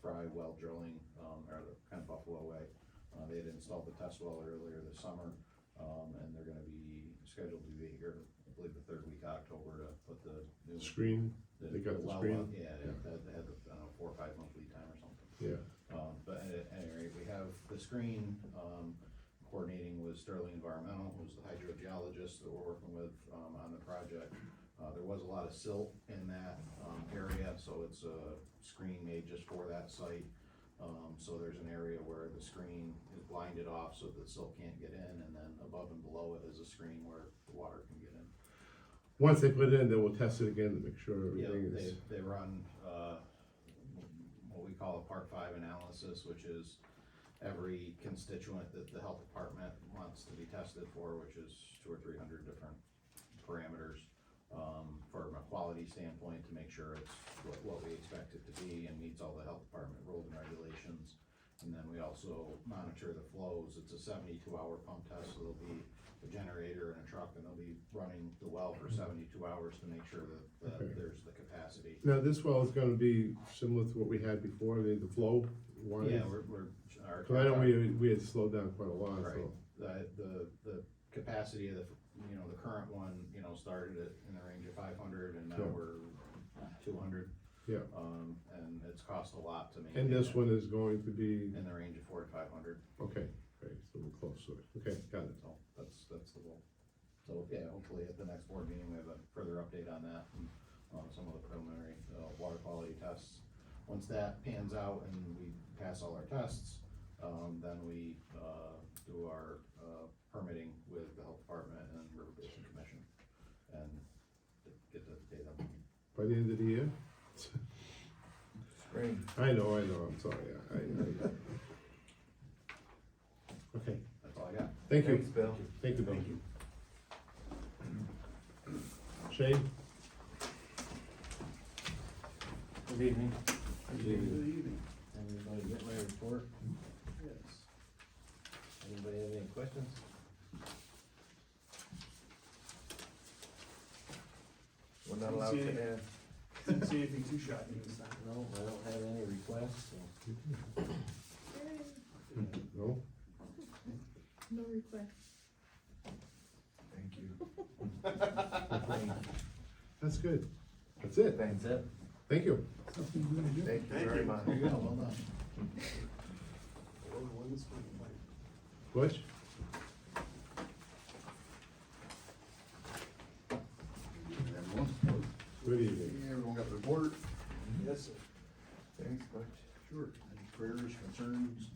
dry well drilling, um, or the kind of Buffalo way. Uh, they had installed the test well earlier this summer, um, and they're gonna be scheduled to be here, I believe, the third week of October to put the new. Screen, they got the well screen? up. Yeah, it had, it had, I don't know, four or five month lead time or something. yeah, Um, but at any rate, we have the screen, um, coordinating with Sterling Environmental, who's the hydrogeologist that we're working with, um, on the project. Uh, there was a lot of silt in that, um, area, so it's a screen made just for that site. Um, so there's an area where the screen is blinded off so the silt can't get in, and then above and below it is a screen where the water can get in. once they put it in, then we'll test it again to make sure Yeah, everything they, is, they run, uh, what we call a part five analysis, which is every constituent that the health department wants to be tested for, which is two or three hundred different parameters. Um, from a quality standpoint, to make sure it's what, what we expect it to be and meets all the health department rules and regulations. And then we also monitor the flows, it's a seventy-two hour pump test, so there'll be a generator and a truck, and they'll be running the well for seventy-two hours to make sure that, Okay. that there's the capacity. now this well is gonna be similar to what we had before, the, the flow one is. Yeah, we're, we're, our. Cause I know we, we had slowed down quite a lot, Right, so, the, the, the capacity of the, you know, the current one, you know, started at, in the range of five hundred, and now Sure. we're two hundred. yeah, Um, and it's cost a lot to maintain. and this it, one is going to be, In the range of four to five hundred, okay, great, so we're close to it, okay, got it. so that's, that's the goal. So, yeah, hopefully at the next board meeting, we have a further update on that, and on some of the preliminary, uh, water quality tests. Once that pans out and we pass all our tests, um, then we, uh, do our, uh, permitting with the health department and river basin commission. And get the data. By the end of the year? Spring. I know, I know, I'm sorry, I, I. Okay, That's all I got. thank you, Thanks, Bill. thank you, Bill. Shane? Good evening. Good evening. Everybody get my report? Yes. Anybody have any questions? We're not allowed Didn't see to add. Didn't see anything too shocking this time. No, I don't have any requests, so. No? No requests. Thank you. That's good, that's it, Thanks, it. thank you. Thank you very much. There you go, well done. Bush? Good evening. Everyone got their report? Yes, sir. Thanks, Butch. Mm-hmm. Sure. Any prayers, concerns,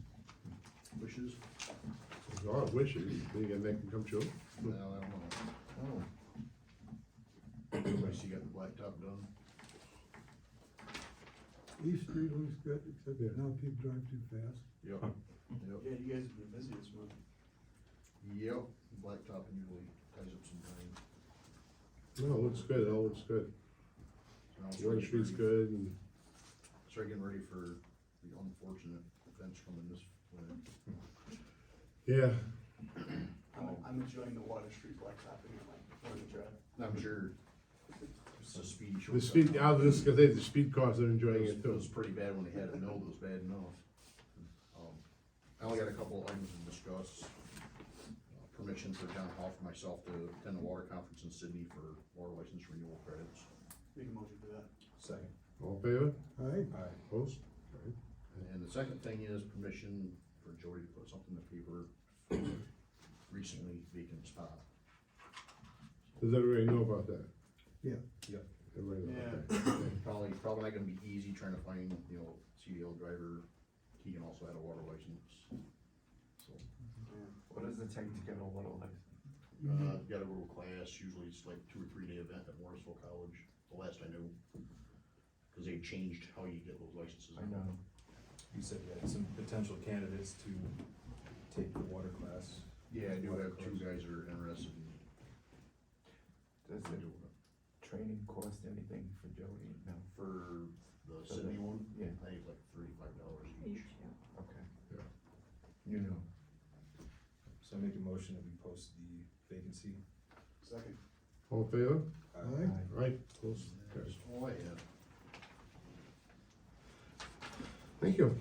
wishes? God wishes, you gonna make them come true? No, I don't know. Oh. Everybody see you got the blacktop done? East Street looks good, except Yeah. now people drive too fast. Yep. Yep, Yeah, you guys have been busy this month. yep, blacktop usually ties up some time. No, it looks good, it all looks good. So now it's One ready street's for- good and, Start getting ready for the unfortunate events coming this winter. yeah, I'm, I'm enjoying the Water Street blacktop anyway. Wanted to try. I'm sure it's a speed shortcut. the speed, I was just gonna say, the speed cars are enjoying It it was, it too. was pretty bad when they had it milled, it was bad enough. Um, I only got a couple of items to discuss. Uh, Permission for John Hall for myself to attend the water conference in Sydney for water license renewal credits. Make a motion for that. Second. All in favor? Aye, Opposed? Alright. And the second thing is permission for Jody to put something in the paper for recently vacant spot. Does everybody know about that? Yeah. Yep. Everybody know about that? Probably, probably not gonna be easy trying to find, you know, CDL driver. Keegan also had a water license. So, What does it take to get a water license? Uh, got a little class, usually it's like two or three day event at Morrisville College, the last I knew. Cause they changed how you get those licenses. I know. You said you had some potential candidates to take the water class. Yeah, I do have two guys that are interested in. Does the training cost anything for Jody? No. For the Sydney one? Yeah. I think it's like thirty-five dollars each. Each, yeah. Okay. Yeah. You know. So I make a motion that we post the vacancy. Second. All in favor? aye. Alright, opposed? That's all I have. Thank you.